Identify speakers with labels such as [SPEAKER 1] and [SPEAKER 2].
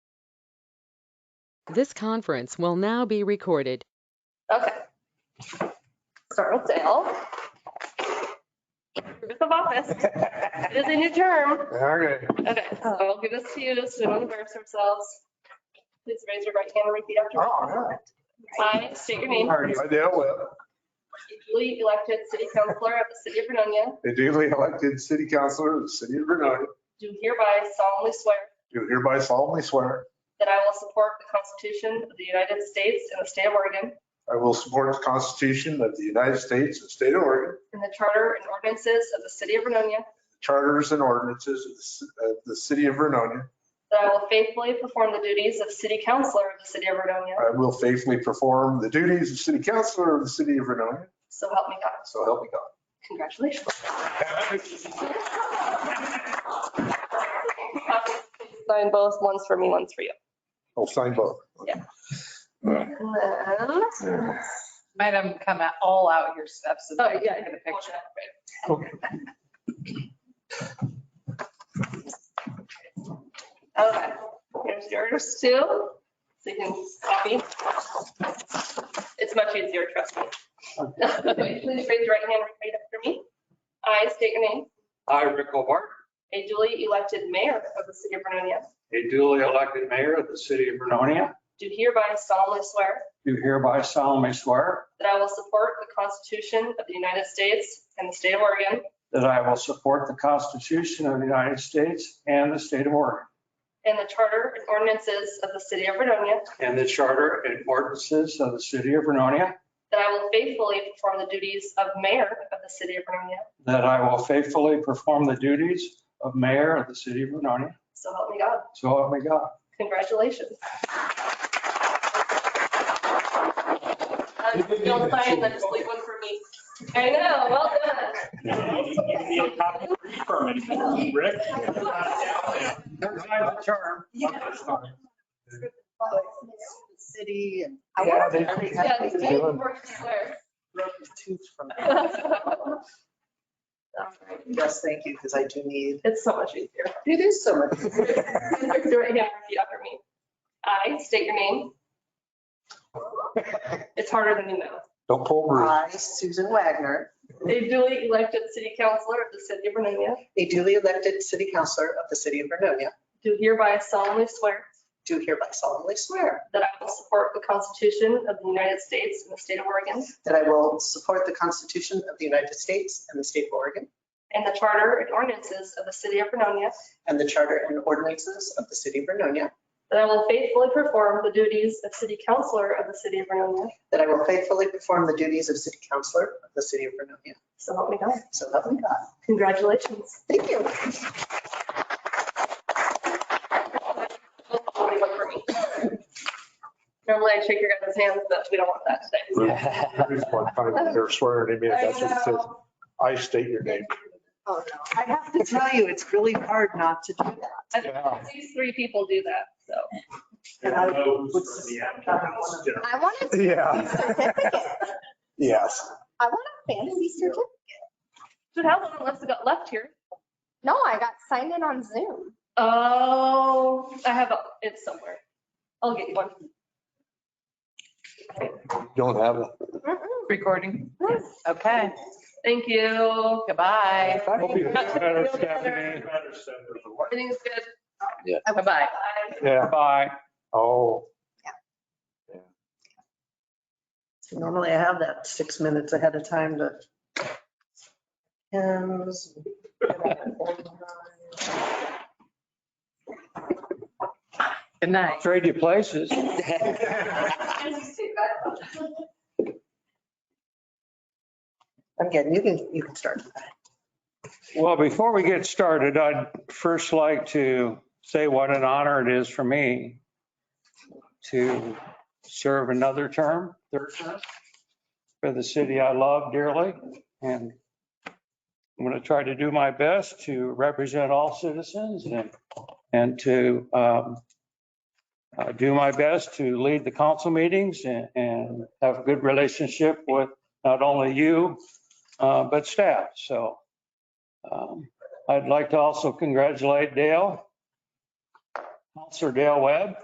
[SPEAKER 1] This conference will now be recorded.
[SPEAKER 2] Okay. Start with Dale. Purpose of office, it is a new term.
[SPEAKER 3] Okay.
[SPEAKER 2] Okay, so I'll give this to you to sit on the verse ourselves. Please raise your right hand and repeat after me.
[SPEAKER 3] Oh,
[SPEAKER 2] I state your
[SPEAKER 3] yeah.
[SPEAKER 2] name,
[SPEAKER 3] I dealt with
[SPEAKER 2] duly elected city councillor of the city of Vernonia,
[SPEAKER 3] the duly elected city councilor of the city of Vernonia.
[SPEAKER 2] do hereby solemnly swear
[SPEAKER 3] Do hereby solemnly swear
[SPEAKER 2] that I will support the Constitution of the United States and the state of Oregon
[SPEAKER 3] I will support the Constitution of the United States and State of Oregon,
[SPEAKER 2] and the charter and ordinances of the city of Vernonia,
[SPEAKER 3] charters and ordinances of the ci- of the city of Vernonia.
[SPEAKER 2] that I will faithfully perform the duties of city councillor of the city of Vernonia,
[SPEAKER 3] I will faithfully perform the duties of city councilor of the city of Vernonia.
[SPEAKER 2] so help me God.
[SPEAKER 3] So help me God.
[SPEAKER 2] Congratulations. Sign both, one's for me, one's for you.
[SPEAKER 3] I'll sign both.
[SPEAKER 4] Might have come out all out your steps and
[SPEAKER 2] Oh,
[SPEAKER 4] like
[SPEAKER 2] yeah.
[SPEAKER 4] get a picture.
[SPEAKER 2] Okay, here's yours too, so you can copy. It's much easier, trust me. Okay, Please raise your right hand and repeat after me. I state your name,
[SPEAKER 5] I, Rick Hobart,
[SPEAKER 2] a duly elected mayor of the city of Vernonia,
[SPEAKER 5] a duly elected mayor of the city of Vernonia,
[SPEAKER 2] do hereby solemnly swear
[SPEAKER 5] do hereby solemnly swear
[SPEAKER 2] that I will support the Constitution of the United States and the state of Oregon,
[SPEAKER 5] that I will support the Constitution of the United States and the state of Oregon,
[SPEAKER 2] and the charter and ordinances of the city of Vernonia,
[SPEAKER 5] and the charter and ordinances of the city of Vernonia,
[SPEAKER 2] That I will faithfully perform the duties of mayor of the city of Vernonia.
[SPEAKER 5] that I will faithfully perform the duties of mayor of the city of Vernonia.
[SPEAKER 2] So help me God.
[SPEAKER 5] So help me God.
[SPEAKER 2] Congratulations. Um, Don't sign, then just leave one for me. I know, well done.
[SPEAKER 6] You need a copy of your permit, Rick.
[SPEAKER 5] Third time's a charm.
[SPEAKER 4] City and.
[SPEAKER 5] I wonder if Yeah, they-
[SPEAKER 2] Yeah, it's me before you swear.
[SPEAKER 4] broke the tooth from it.
[SPEAKER 2] All right.
[SPEAKER 4] Yes, thank you, because I do need.
[SPEAKER 2] It's so much easier.
[SPEAKER 4] It is so much.
[SPEAKER 2] Raise your right hand and repeat after me. I state your name. It's harder than you know.
[SPEAKER 3] Don't pull Bruce.
[SPEAKER 4] I, Susan Wagner,
[SPEAKER 2] A duly elected city councillor of the city of Vernonia,
[SPEAKER 4] a duly elected city councillor of the city of Vernonia,
[SPEAKER 2] do hereby solemnly swear
[SPEAKER 4] do hereby solemnly swear
[SPEAKER 2] that I will support the Constitution of the United States and the state of Oregon,
[SPEAKER 4] that I will support the Constitution of the United States and the state of Oregon
[SPEAKER 2] and the charter and ordinances of the city of Vernonia,
[SPEAKER 4] and the charter and ordinances of the city of Vernonia,
[SPEAKER 2] that I will faithfully perform the duties of city councillor of the city of Vernonia.
[SPEAKER 4] that I will faithfully perform the duties of city councillor of the city of Vernonia.
[SPEAKER 2] So help me God.
[SPEAKER 4] So help me God.
[SPEAKER 2] Congratulations.
[SPEAKER 4] Thank you.
[SPEAKER 2] Nobody look for me. Normally I shake your guys' hands, but we don't want that today.
[SPEAKER 3] Bruce, one time, They're swearing at me. Uh, I got you. It says, I state your name.
[SPEAKER 4] Oh, no. I have to tell you, it's really hard not to do that.
[SPEAKER 2] I think These three people do that, so.
[SPEAKER 4] And I would
[SPEAKER 7] I want a
[SPEAKER 3] Yeah.
[SPEAKER 7] certificate.
[SPEAKER 3] Yes.
[SPEAKER 7] I want a fantasy certificate.
[SPEAKER 2] Should have one unless it got left here.
[SPEAKER 7] No, I got signed in on Zoom.
[SPEAKER 2] Oh, I have, a- it's somewhere. I'll get you one.
[SPEAKER 3] Don't have it.
[SPEAKER 4] Recording. Okay,
[SPEAKER 2] Thank you.
[SPEAKER 4] goodbye.
[SPEAKER 6] Better
[SPEAKER 2] Feel
[SPEAKER 6] Stephanie.
[SPEAKER 2] Everything's good.
[SPEAKER 4] Bye-bye.
[SPEAKER 2] Bye.
[SPEAKER 3] Yeah.
[SPEAKER 5] Bye.
[SPEAKER 3] Oh.
[SPEAKER 4] Normally I have that six minutes ahead of time to. Hymns.
[SPEAKER 5] Good night. Trade you places.
[SPEAKER 4] I'm getting, you can, you can start.
[SPEAKER 5] Well, before we get started, I'd first like to say what an honor it is for me to serve another term, third term, for the city I love dearly. And I'm going to try to do my best to represent all citizens and, and to um, uh, do my best to lead the council meetings and, and have a good relationship with not only you, uh, but staff. So um, I'd like to also congratulate Dale, Counselor Dale Webb,